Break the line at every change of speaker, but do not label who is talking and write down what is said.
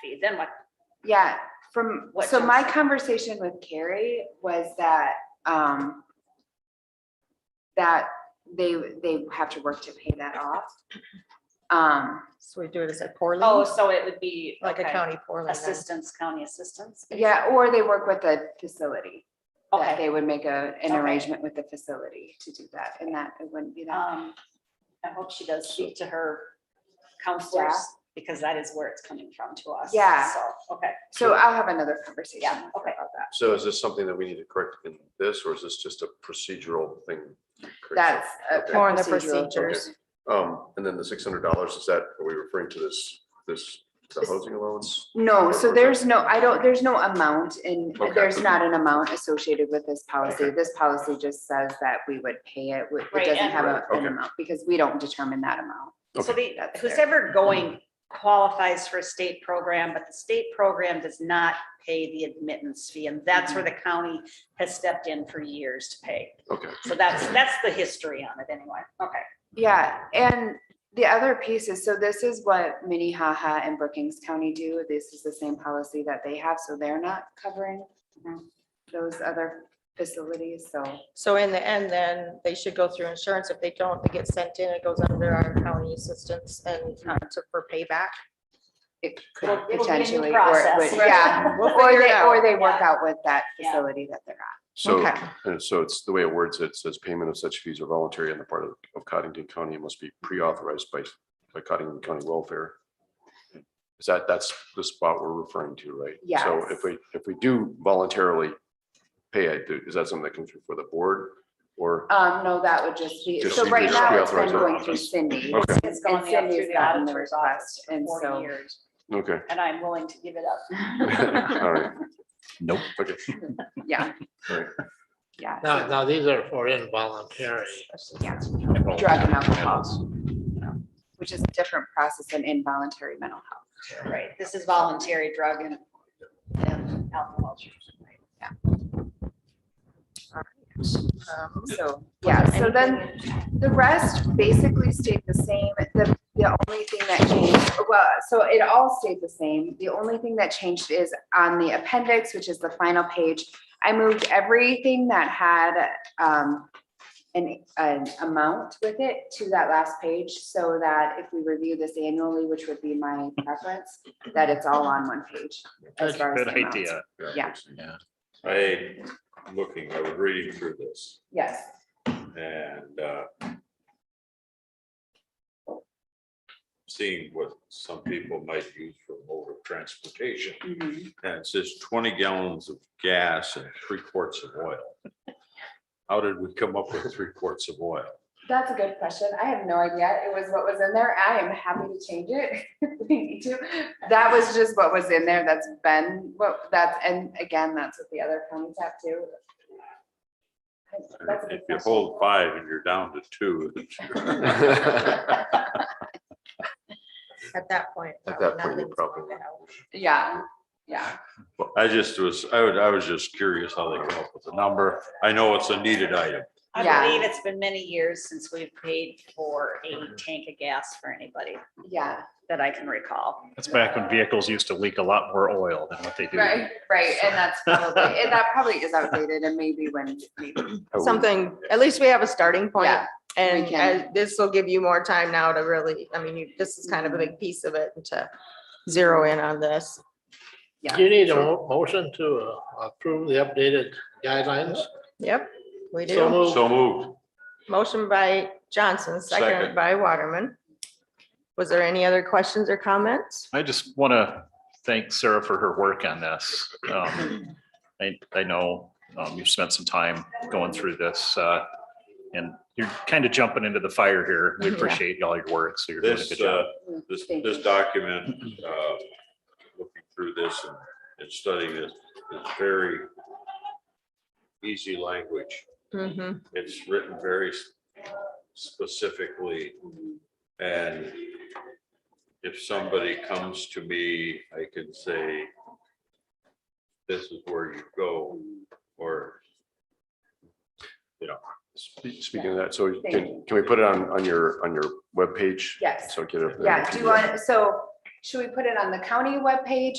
fee, then what?
Yeah, from,
What
so
jumps
my
out?
conversation with Carrie was that, um, that they, they have to work to pay that off. Um,
So we do it as a poorly,
Oh, so it would be.
like a
okay.
county poorly. then.
Assistance, county assistance.
yeah, or they work with the facility. That
Okay.
they would make a, an
Okay.
arrangement with the facility to do that, and that it wouldn't be that.
Um, I hope she does speak to her counselors,
Staff.
because that is where it's coming from to us.
Yeah.
So, okay,
So I'll have another conversation
Yeah,
with her
okay.
about that.
So is this something that we need to correct in this, or is this just a procedural thing?
That's. a
Okay.
More on the
procedural thing.
procedures.
Um, and then the six hundred dollars, is that, are we referring to this, this, the housing allowance?
No,
Or-
so
or-
there's no, I don't, there's no amount and
Okay.
there's not an amount associated with this policy.
Okay.
This policy just says that we would pay it. It
Right,
doesn't
and-
have a-
Right,
an
okay.
amount because we don't determine that amount.
so the,
That's
who's
fair.
ever going qualifies for a state program, but the state program does not pay the admittance fee, and that's where the
Mm-hmm.
county has stepped in for years to pay.
Okay,
So that's, that's the history on it anyway, okay.
Mm-hmm.
Yeah, and the other piece is, so this is what Minnehaha and Brookings County do. This is the same policy that they have, so they're not covering
Mhm.
those other facilities, so.
So in the end, then they should go through insurance. If they don't, they get sent in, it goes under our county assistance and uh, to- for payback.
It could
It'll- it'll be a new
potentially, or it
process.
would, yeah, or they, or they work
Yeah.
out with that
Yeah.
facility that they're at.
so,
Okay.
uh, so it's the way it words, it says payment of such fees are voluntary on the part of of Cottington County and must be pre-authorized by, by Cottington County Welfare. Is that, that's the spot we're referring to, right? So
Yes.
if we, if we do voluntarily pay it, is that something that comes before the board? Or,
Um, no, that would just be,
Just
so
be-
right
just
now
be
it's been
authorized
going
by
through
us.
Cindy.
Okay.
It's gone
And
up through
Cindy's
the
gotten the
auditor's
request,
office
and
for
so-
forty years,
okay.
and I'm willing to give it up.
All right.
Nope.
Okay.
Yeah.
Right.
Yeah.
Now, now these are for involuntary.
Yeah. Drug and alcohol. Which is a different process than involuntary mental health.
Right, this is voluntary drug and and alcohol.
Um,
So, yeah, so then the rest basically stayed the same. The, the only thing that changed, well, so it all stayed the same. The only thing that changed is on the appendix, which is the final page. I moved everything that had, um, an, an amount with it to that last page so that if we review this annually, which would be my preference, that it's all on one page. as
That's a
far as
good
the amounts.
idea.
Yeah.
Yeah.
I looking, I was reading through this
Yes.
and uh. Seeing what some people might use for mode of transportation,
Mhm.
and it says twenty gallons of gas and three quarts of oil. How did we come up with three quarts of oil?
That's a good question. I have no idea. It was what was in there. I am happy to change it. if We need to. That was just what was in there. That's been what that's, and again, that's what the other counties have too. That's a good
If you
question.
hold five and you're down to two.
At that point.
At
probably
that point,
nothing's
probably
going out.
Yeah, yeah.
I just was, I would, I was just curious how they come up with the number. I know it's a needed item.
I
Yeah.
believe it's been many years since we've paid for a tank of gas for anybody
Yeah,
that I can recall.
That's back when vehicles used to leak a lot more oil than what they do.
right, right. And that's probably, and that probably is outdated and maybe when, maybe,
I would-
Something, at least we have a starting point.
yeah,
And
can.
uh, this will give you more time now to really, I mean, you- this is kind of a big piece of it and to zero in on this.
Yeah.
Do you need a mo- motion to uh, approve the updated guidelines?
Yep, we
So
do.
moved.
So moved.
Motion by Johnson, second
Second.
by Waterman. Was there any other questions or comments?
I just want to thank Sarah for her work on this. Um, I, I know um, you've spent some time going through this, uh, and you're kind of jumping into the fire here. We
Yeah.
appreciate all your work, so you're doing a
This,
good job.
uh, this,
Thank
this
you.
document, uh, looking through this and- and studying this, is very easy language.
Mm-hmm.
It's written very s- specifically. And if somebody comes to me, I can say, this is where you go, or
Spe- Speaking of that, so
Thank
can, can we put it on, on your, on your webpage?
yes.
So get it.
Yeah, do you want, so Should we put it on the county webpage